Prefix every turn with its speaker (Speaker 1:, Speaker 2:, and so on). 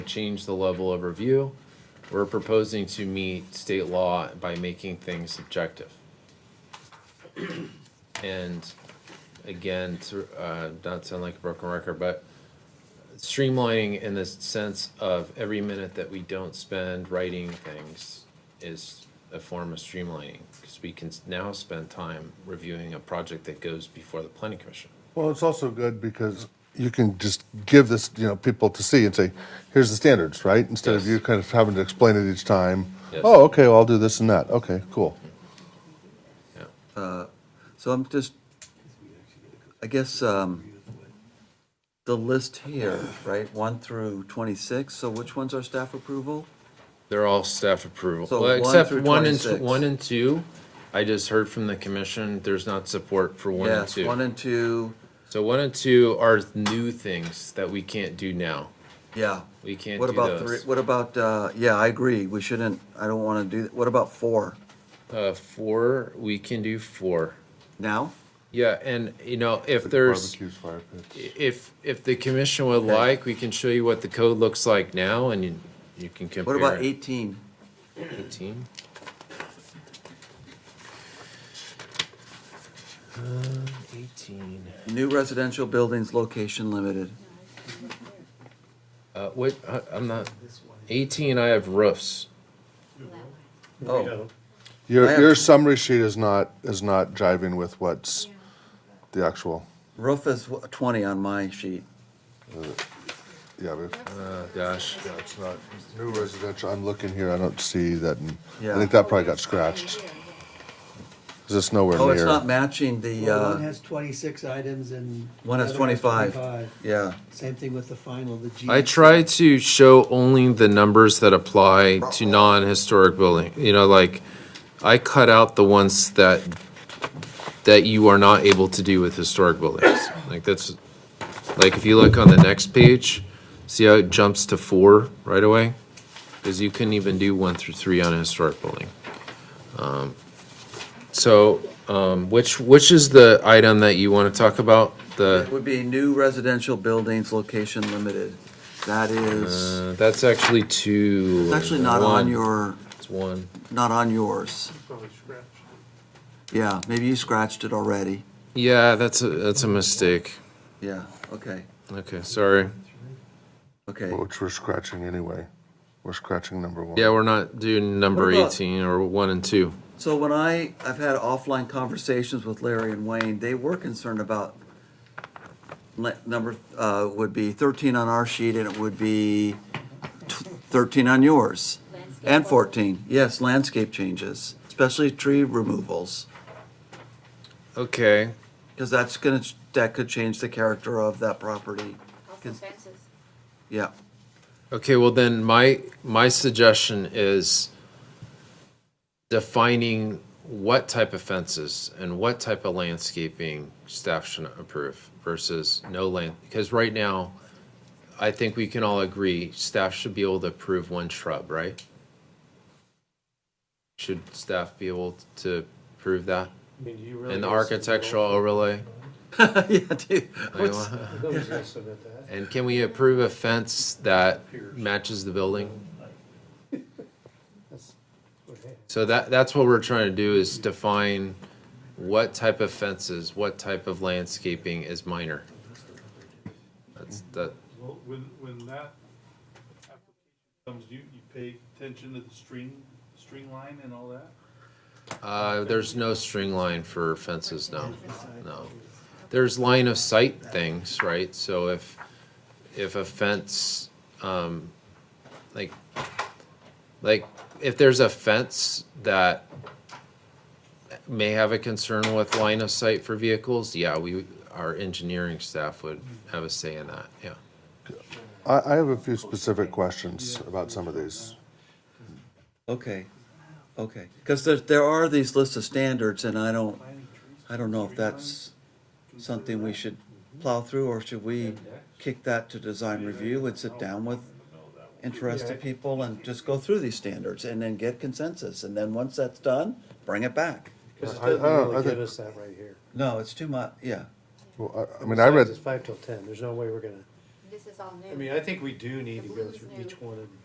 Speaker 1: change the level of review. We're proposing to meet state law by making things subjective. And again, to, uh, not sound like a broken record, but streamlining in the sense of every minute that we don't spend writing things is a form of streamlining. Cause we can now spend time reviewing a project that goes before the planning commission.
Speaker 2: Well, it's also good because you can just give this, you know, people to see and say, here's the standards, right? Instead of
Speaker 1: Yes.
Speaker 2: you kind of having to explain it each time.
Speaker 1: Yes.
Speaker 2: Oh, okay, well, I'll do this and that. Okay, cool.
Speaker 1: Yeah.
Speaker 3: So I'm just, I guess, um, the list here, right, one through twenty-six, so which one's our staff approval?
Speaker 1: They're all staff approval,
Speaker 3: So
Speaker 1: well,
Speaker 3: one
Speaker 1: except
Speaker 3: through
Speaker 1: one and,
Speaker 3: 26.
Speaker 1: one and two. I just heard from the commission, there's not support for one and
Speaker 3: Yes, one
Speaker 1: two.
Speaker 3: and two,
Speaker 1: So one and two are new things that we can't do now.
Speaker 3: yeah.
Speaker 1: We can't
Speaker 3: What
Speaker 1: do
Speaker 3: about
Speaker 1: those.
Speaker 3: three, what about, uh, yeah, I agree, we shouldn't, I don't wanna do, what about four
Speaker 1: Uh, four, we can do four.
Speaker 3: now?
Speaker 1: Yeah, and you know, if there's,
Speaker 2: Barbecues, fire pits.
Speaker 1: if, if the commission would like, we can show you what the code looks like now and you, you can compare.
Speaker 3: What about
Speaker 1: it.
Speaker 3: eighteen?
Speaker 1: 18. Um, 18.
Speaker 3: New residential buildings, location limited.
Speaker 1: Uh, what, I- I'm not, 18, I have roofs.
Speaker 3: Oh, I
Speaker 2: Your,
Speaker 3: have-
Speaker 2: your summary sheet is not, is not jiving with what's the actual,
Speaker 3: roof is wh- twenty on my sheet.
Speaker 2: yeah, but, uh,
Speaker 1: Oh, gosh.
Speaker 2: yeah, it's not, new residential, I'm looking here, I don't see that. in- I
Speaker 3: Yeah.
Speaker 2: think that probably got scratched. 'Cause it's nowhere
Speaker 3: Oh, it's not
Speaker 2: near.
Speaker 3: matching the,
Speaker 4: Well, One
Speaker 3: uh,
Speaker 4: has twenty-six items and.
Speaker 3: one has
Speaker 4: the other
Speaker 3: twenty-five, yeah.
Speaker 4: Same thing with the final, the G.
Speaker 1: I try to show only the numbers that apply to non-historic building, you know, like, I cut out the ones that, that you are not able to do with historic buildings. Like, that's, like, if you look on the next page, see how it jumps to four right away? Because you couldn't even do one through three on a historic building. Um, So, um, which, which is the item that you want to talk about? The,
Speaker 3: It would be new residential buildings, location limited. That is,
Speaker 1: uh, that's actually two.
Speaker 3: it's actually not on
Speaker 1: one.
Speaker 3: your,
Speaker 1: It's one.
Speaker 3: not on yours. Yeah, maybe you scratched it already.
Speaker 1: Yeah, that's a, that's a mistake.
Speaker 3: Yeah, okay,
Speaker 1: Okay, sorry.
Speaker 3: okay.
Speaker 2: Which we're scratching anyway. We're scratching number one.
Speaker 1: Yeah, we're not doing number
Speaker 3: What about-
Speaker 1: 18 or 1 and 2.
Speaker 3: So when I, I've had offline conversations with Larry and Wayne, they were concerned about le- number, uh, would be thirteen on our sheet and it would be t- thirteen on yours. And fourteen, yes, landscape changes, especially tree removals.
Speaker 1: Okay.
Speaker 3: Because that's gonna, ch- that could change the character of that property.
Speaker 5: Also fences.
Speaker 3: Yeah,
Speaker 1: Okay, well then my my suggestion is defining what type of fences and what type of landscaping staff should approve versus no land because right now I think we can all agree staff should be able to approve one shrub, right? Should staff be able to approve that?
Speaker 6: I mean, do you really
Speaker 1: And the
Speaker 6: gotta submit
Speaker 1: architectural
Speaker 6: all-
Speaker 1: overlay?
Speaker 3: yeah, dude.
Speaker 1: Like,
Speaker 3: What's-
Speaker 6: Nobody's gonna submit that.
Speaker 1: And can we approve a fence that matches the building?
Speaker 6: That's what it is.
Speaker 1: So that, that's what we're trying to do is define what type of fences, what type of landscaping is minor. That's, that,
Speaker 7: Well, when, when that application comes, you, you pay attention to the string, string line and all that?
Speaker 1: uh, there's no string line for fences now, no. There's line of sight things, right? So if, if a fence, um, like, like, if there's a fence that may have a concern with line of sight for vehicles, yeah, we, our engineering staff would have a say in that, yeah.
Speaker 2: I, I have a few specific questions about some of these.
Speaker 3: Okay, okay. Because there, there are these lists of standards and I don't, I don't know if that's something we should plow through or should we kick that to design review and sit down with interested people and just go through these standards and then get consensus. And then once that's done, bring it back.
Speaker 6: 'Cause it
Speaker 2: I- I
Speaker 6: doesn't
Speaker 2: don't- I
Speaker 6: really
Speaker 2: think-
Speaker 6: give us that right here.
Speaker 3: No, it's too much, yeah.
Speaker 2: Well, I, I mean, I read,
Speaker 6: It's five till ten. There's no way we're gonna,
Speaker 5: This is all new.
Speaker 6: I mean, I think we do need to go through each one of